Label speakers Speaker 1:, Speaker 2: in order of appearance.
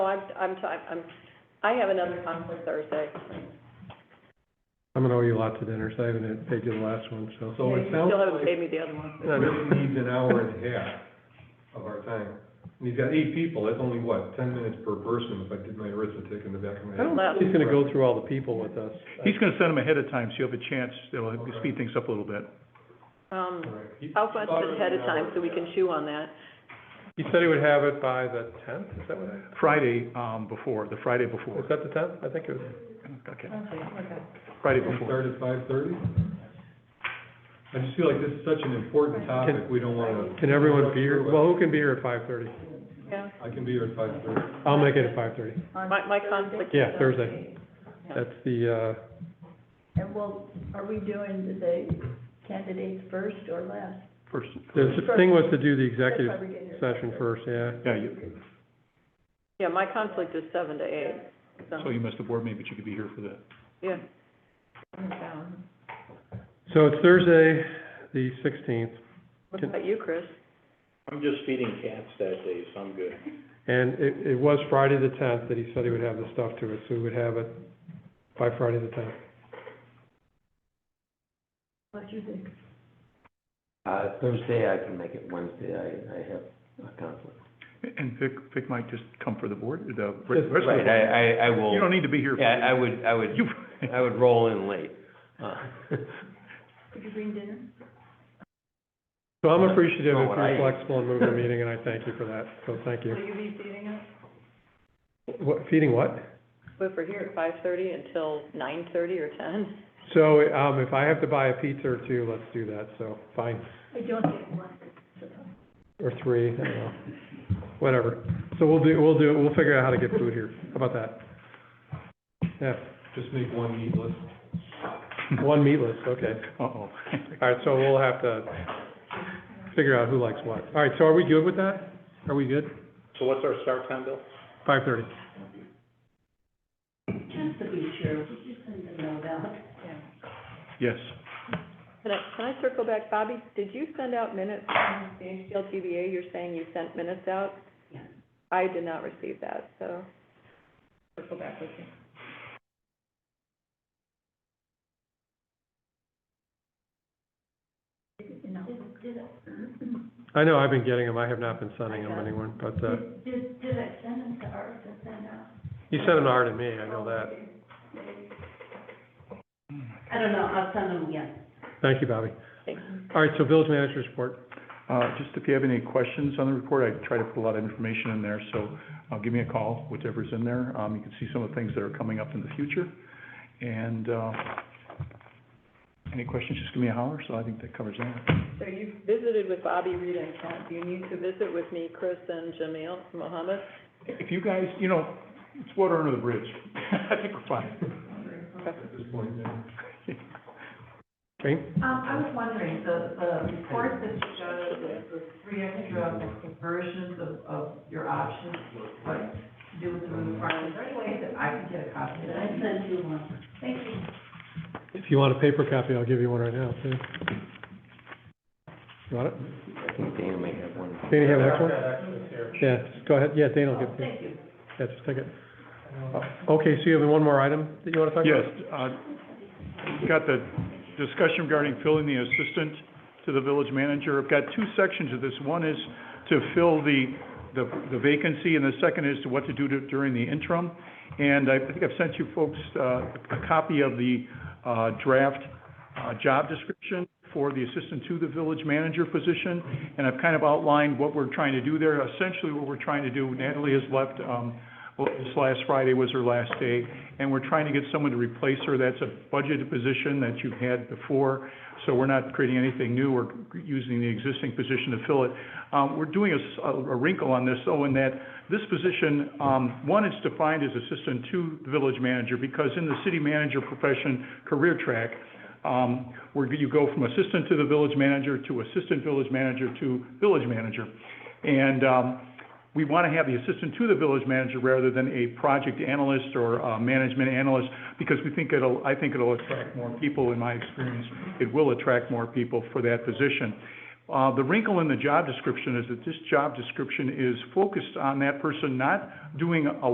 Speaker 1: Oh, I'm, ti- I'm, I have another conflict Thursday.
Speaker 2: I'm gonna owe you lots of dinners, I haven't paid you the last one, so.
Speaker 3: So
Speaker 1: You
Speaker 3: it sounds
Speaker 1: still haven't
Speaker 3: like
Speaker 1: paid me the other one.
Speaker 3: Rick needs an hour and a half of our time. And he's got eight people, that's only what, ten minutes per person, if I did my arithmetic in the back of my
Speaker 2: I
Speaker 3: head.
Speaker 2: don't think he's gonna go through all the people with us.
Speaker 4: He's gonna send them ahead of time, so you'll have a chance, it'll speed things up a little bit.
Speaker 1: Um,
Speaker 3: Right. He-
Speaker 1: how
Speaker 3: he
Speaker 1: much
Speaker 3: thought it was
Speaker 1: ahead of
Speaker 3: an
Speaker 1: time
Speaker 3: hour,
Speaker 1: so we
Speaker 3: yeah.
Speaker 1: can chew on that?
Speaker 2: He said he would have it by the tenth, is that what I,
Speaker 4: Friday, um, before, the Friday
Speaker 2: was
Speaker 4: before,
Speaker 2: that the tenth? I think it was.
Speaker 4: okay,
Speaker 1: Okay.
Speaker 4: Friday
Speaker 3: Can we
Speaker 4: before.
Speaker 3: Start at five thirty? I just feel like this is such an important topic, we don't wanna.
Speaker 2: Can everyone be here? Well, who can be here at five thirty?
Speaker 1: Yeah,
Speaker 3: I can be here at five thirty.
Speaker 2: I'll make it at five thirty.
Speaker 1: my, my conflict.
Speaker 2: Yeah, Thursday. That's the, uh,
Speaker 5: And well, are we doing the candidates first or last?
Speaker 4: First,
Speaker 2: the thing was to do the
Speaker 5: That's why
Speaker 2: executive
Speaker 5: we're getting it.
Speaker 2: session first, yeah.
Speaker 4: yeah, you,
Speaker 1: Yeah, my conflict is seven to eight,
Speaker 4: so
Speaker 1: so,
Speaker 4: you missed the board meeting, but you could be here for the,
Speaker 1: yeah.
Speaker 5: Um,
Speaker 2: So it's Thursday, the sixteenth,
Speaker 1: What
Speaker 2: Can-
Speaker 1: about you, Chris?
Speaker 6: I'm just feeding cats that day, so I'm good.
Speaker 2: and it, it was Friday the tenth that he said he would have the stuff to it, so we would have it by Friday the tenth.
Speaker 5: What do you think?
Speaker 7: Uh, Thursday, I can make it Wednesday, I, I have a conflict.
Speaker 4: and Vic, Vic might just come for the board, the rest of the board.
Speaker 7: Right, I, I, I
Speaker 4: You don't
Speaker 7: will,
Speaker 4: need to be here for
Speaker 7: yeah, I
Speaker 4: the,
Speaker 7: would, I would,
Speaker 4: you,
Speaker 7: I would roll in late. Uh,
Speaker 5: Could you bring dinner?
Speaker 2: So I'm appreciative
Speaker 7: Not
Speaker 2: if
Speaker 7: what
Speaker 2: you're
Speaker 7: I eat.
Speaker 2: flexible and moving the meeting, and I thank you for that, so thank you.
Speaker 5: you be seating us?
Speaker 2: What, feeding what?
Speaker 1: If we're here at five thirty until nine thirty or ten?
Speaker 2: So, um, if I have to buy a pizza or two, let's do that, so, fine,
Speaker 5: I don't think one. so.
Speaker 2: or three, I don't know, whatever. So we'll do, we'll do, we'll figure out how to get food here, how about that? Yeah,
Speaker 3: Just make one needless.
Speaker 2: one meatless, okay.
Speaker 4: uh-oh.
Speaker 2: All right, so we'll have to figure out who likes what. All right, so are we good with that? Are we good?
Speaker 6: So what's our start time, Bill?
Speaker 2: Five thirty.
Speaker 8: Just to be sure, we just send them out about.
Speaker 4: Yes,
Speaker 1: Can I, can I circle back, Bobby? Did you send out minutes from the HLTBA? You're saying you sent minutes out?
Speaker 8: Yeah.
Speaker 1: I did not receive that, so. Circle back with you.
Speaker 5: You know.
Speaker 8: Did, did,
Speaker 2: I know I've been getting them, I have not been sending them anyone, but, uh,
Speaker 8: did- did, did I send them to Art to send out?
Speaker 2: you sent an R to me, I know
Speaker 7: Uh,
Speaker 2: that.
Speaker 8: I don't know, I'll send them again.
Speaker 2: Thank you, Bobby.
Speaker 1: Thanks.
Speaker 2: All right, so village manager's report.
Speaker 4: uh, just if you have any questions on the report, I try to put a lot of information in there, so, uh, give me a call, whichever's in there. Um, you can see some of the things that are coming up in the future, and, uh, any questions, just give me a holler, so I think that covers that.
Speaker 1: So you visited with Bobby, Rita, and Kent. Uh, Do you need to visit with me, Chris, and Jamil, Mohammed?
Speaker 4: If you guys, you know, it's water under the bridge. I think we're fine.
Speaker 3: At this point, yeah.
Speaker 2: Okay,
Speaker 9: Um, I was wondering, the, the report that you showed, the, the three, I think, uh, versions of, of your options, what to do with the roof farm, is there any way that I can get a copy of that?
Speaker 8: I sent you one.
Speaker 9: Thank you.
Speaker 2: if you want a paper copy, I'll give you one right now, too. You want it?
Speaker 7: I think Dana may have one.
Speaker 2: Dana, you have an extra one? Yeah, just go ahead, yeah, Dana will give it to you.
Speaker 9: Thank you.
Speaker 2: Yeah, just take it. Okay, so you have one more item that you wanna talk about?
Speaker 4: Yes, uh, we've got the discussion regarding filling the assistant to the village manager. I've got two sections of this. One is to fill the, the the vacancy, and the second is to what to do to- during the interim. And I think I've sent you folks uh, a copy of the uh, draft uh, job description for the assistant to the village manager position, and I've kind of outlined what we're trying to do there. Essentially, what we're trying to do, Natalie has left, um, well, this last Friday was her last day, and we're trying to get someone to replace her. That's a budgeted position that you've had before, so we're not creating anything new. We're using the existing position to fill it. Um, we're doing a s- a, a wrinkle on this, though, in that this position, um, one, it's defined as assistant to the village manager, because in the city manager profession career track, um, where you go from assistant to the village manager, to assistant village manager, to village manager. And, um, we want to have the assistant to the village manager rather than a project analyst or a management analyst, because we think it'll, I think it'll attract more people, in my experience, it will attract more people for that position. Uh, the wrinkle in the job description is that this job description is focused on that person not doing a